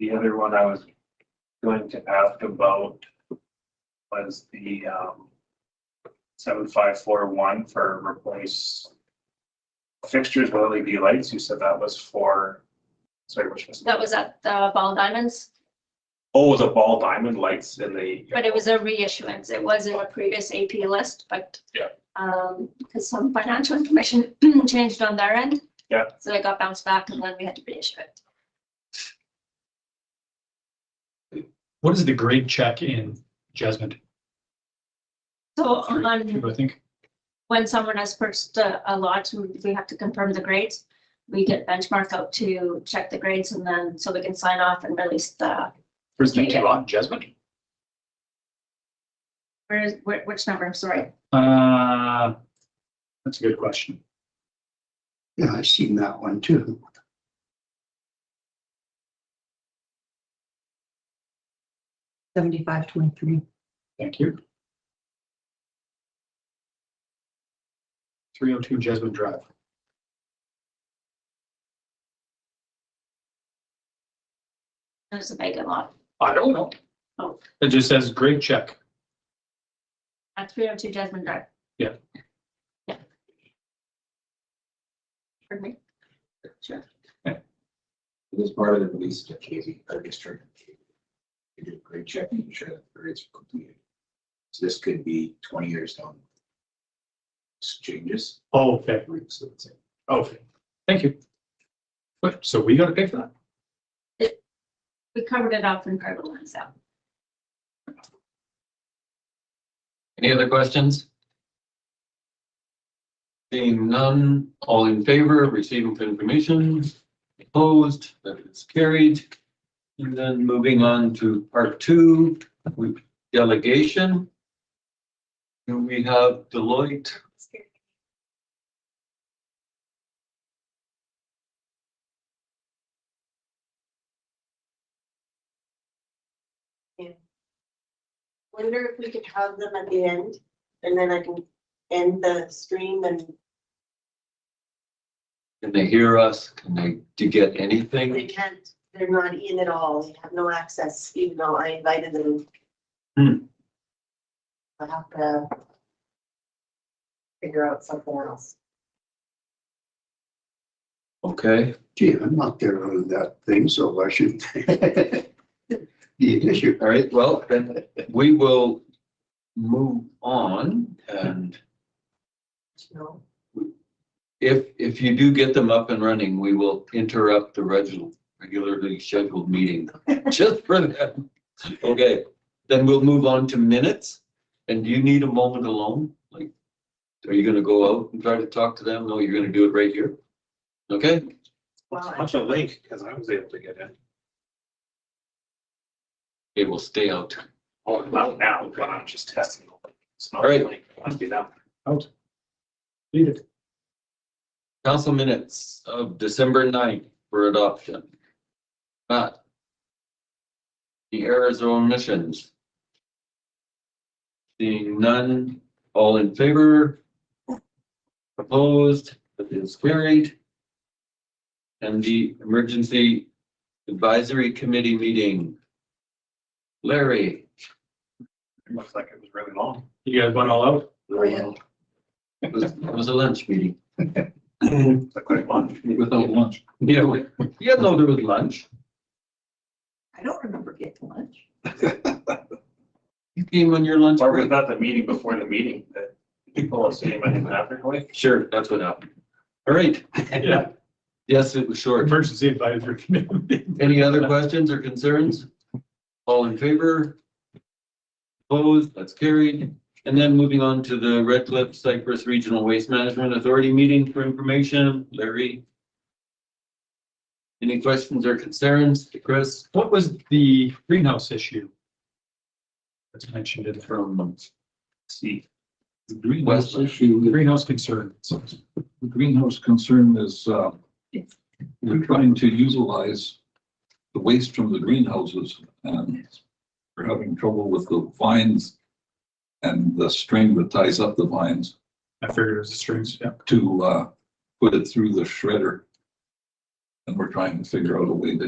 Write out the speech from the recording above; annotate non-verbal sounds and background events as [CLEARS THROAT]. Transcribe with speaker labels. Speaker 1: The other one I was going to ask about was the, um, seven five four one for replace fixtures with LED lights. You said that was for, sorry, which was?
Speaker 2: That was at the Ball Diamonds,
Speaker 1: Oh, the ball diamond lights in the.
Speaker 2: but it was a reissuance. It was in a previous AP list, but.
Speaker 1: Yeah.
Speaker 2: Um, because some financial information [CLEARS THROAT] changed on their end.
Speaker 1: Yeah.
Speaker 2: So it got bounced back and then we had to reissue it.
Speaker 3: What is the grade check in Jasmine?
Speaker 2: So
Speaker 3: Three,
Speaker 2: on,
Speaker 3: Two, I think.
Speaker 2: when someone has purchased a, a lot, we have to confirm the grades. We get benchmark out to check the grades and then, so we can sign off and release the,
Speaker 3: Where's the
Speaker 2: Yeah.
Speaker 3: two on Jasmine?
Speaker 2: where is, where- which number, sorry.
Speaker 3: Uh, that's a good question.
Speaker 4: Yeah, I've seen that one too.
Speaker 5: Seventy-five twenty-three.
Speaker 3: Thank you. Three oh two Jasmine Drive.
Speaker 2: There's a vacant lot.
Speaker 3: I don't know.
Speaker 2: Oh.
Speaker 3: It just says grade check.
Speaker 2: At three oh two Jasmine Drive.
Speaker 3: Yeah.
Speaker 2: Yeah. Pardon me? Sure.
Speaker 6: It was part of the release to Casey, our district. We did a great check, making sure that the grades were completed. So this could be twenty years down. This Changes.
Speaker 3: Oh, Okay,
Speaker 6: So it's-
Speaker 3: okay. Thank you. But, so we gotta pay for that?
Speaker 2: We covered it up in Carbon One, so.
Speaker 7: Any other questions? Seeing none, all in favor of receiving for information, opposed, that is carried. And then moving on to part two, with delegation. Do we have Deloitte?
Speaker 8: wonder if we could have them at the end, and then I can end the stream and
Speaker 7: Can they hear us? Can they, to get
Speaker 8: they
Speaker 7: anything?
Speaker 8: can't, they're not in at all, they have no access, even though I invited them.
Speaker 7: Hmm.
Speaker 8: I have to figure out something else.
Speaker 7: Okay,
Speaker 4: Gee, I'm not there on that thing, so why should [LAUGHS] be an issue?
Speaker 7: all right, well, then we will move on and
Speaker 8: you know?
Speaker 7: If, if you do get them up and running, we will interrupt the regular, regularly scheduled meeting just for them. Okay, then we'll move on to minutes. And do you need a moment alone? Like, are you gonna go out and try to talk to them? No, you're gonna do it right here? Okay,
Speaker 8: Well, I-
Speaker 1: Watch a link, because I was able to get in.
Speaker 7: it will stay out.
Speaker 1: Oh, well, now, but I'm just testing. It's not
Speaker 7: All right.
Speaker 1: like, Must be that.
Speaker 3: Read it.
Speaker 7: Council minutes of December 9th for adoption. Matt. The errors or omissions. Seeing none, all in favor? Opposed, that is carried. And the Emergency Advisory Committee meeting. Larry.
Speaker 1: It Looks like it was really long. [CLEARS THROAT]
Speaker 3: You guys went all out?
Speaker 2: Oh,
Speaker 8: Yeah.
Speaker 7: It was, it was a lunch meeting.
Speaker 1: It's like quite long.
Speaker 7: Without lunch. Yeah, we- yeah, no, there was lunch.
Speaker 5: I don't remember getting lunch.
Speaker 7: You came on your lunch
Speaker 1: Or was
Speaker 7: break.
Speaker 1: that the meeting before the meeting that people are saying about in Africa?
Speaker 7: Sure, that's what happened. All right,
Speaker 3: Yeah.
Speaker 7: yes, it was short.
Speaker 3: Emergency advisory committee. [LAUGHS]
Speaker 7: Any other questions or concerns? All in favor? Opposed, that's carried. And then moving on to the Red Cliff Cypress Regional Waste Management Authority meeting for information, Larry. Any questions or concerns, Chris,
Speaker 3: What was the greenhouse issue? That's mentioned in there.
Speaker 7: from
Speaker 1: See,
Speaker 6: Last
Speaker 3: Greenhouse,
Speaker 6: issue,
Speaker 3: greenhouse concerns.
Speaker 6: the greenhouse concern is, uh, we're trying to utilize the waste from the greenhouses and we're having trouble with the vines and the string that ties up the vines.
Speaker 3: I figured it was the strings, yeah.
Speaker 6: to uh, put it through the shredder. And we're trying to figure out a way to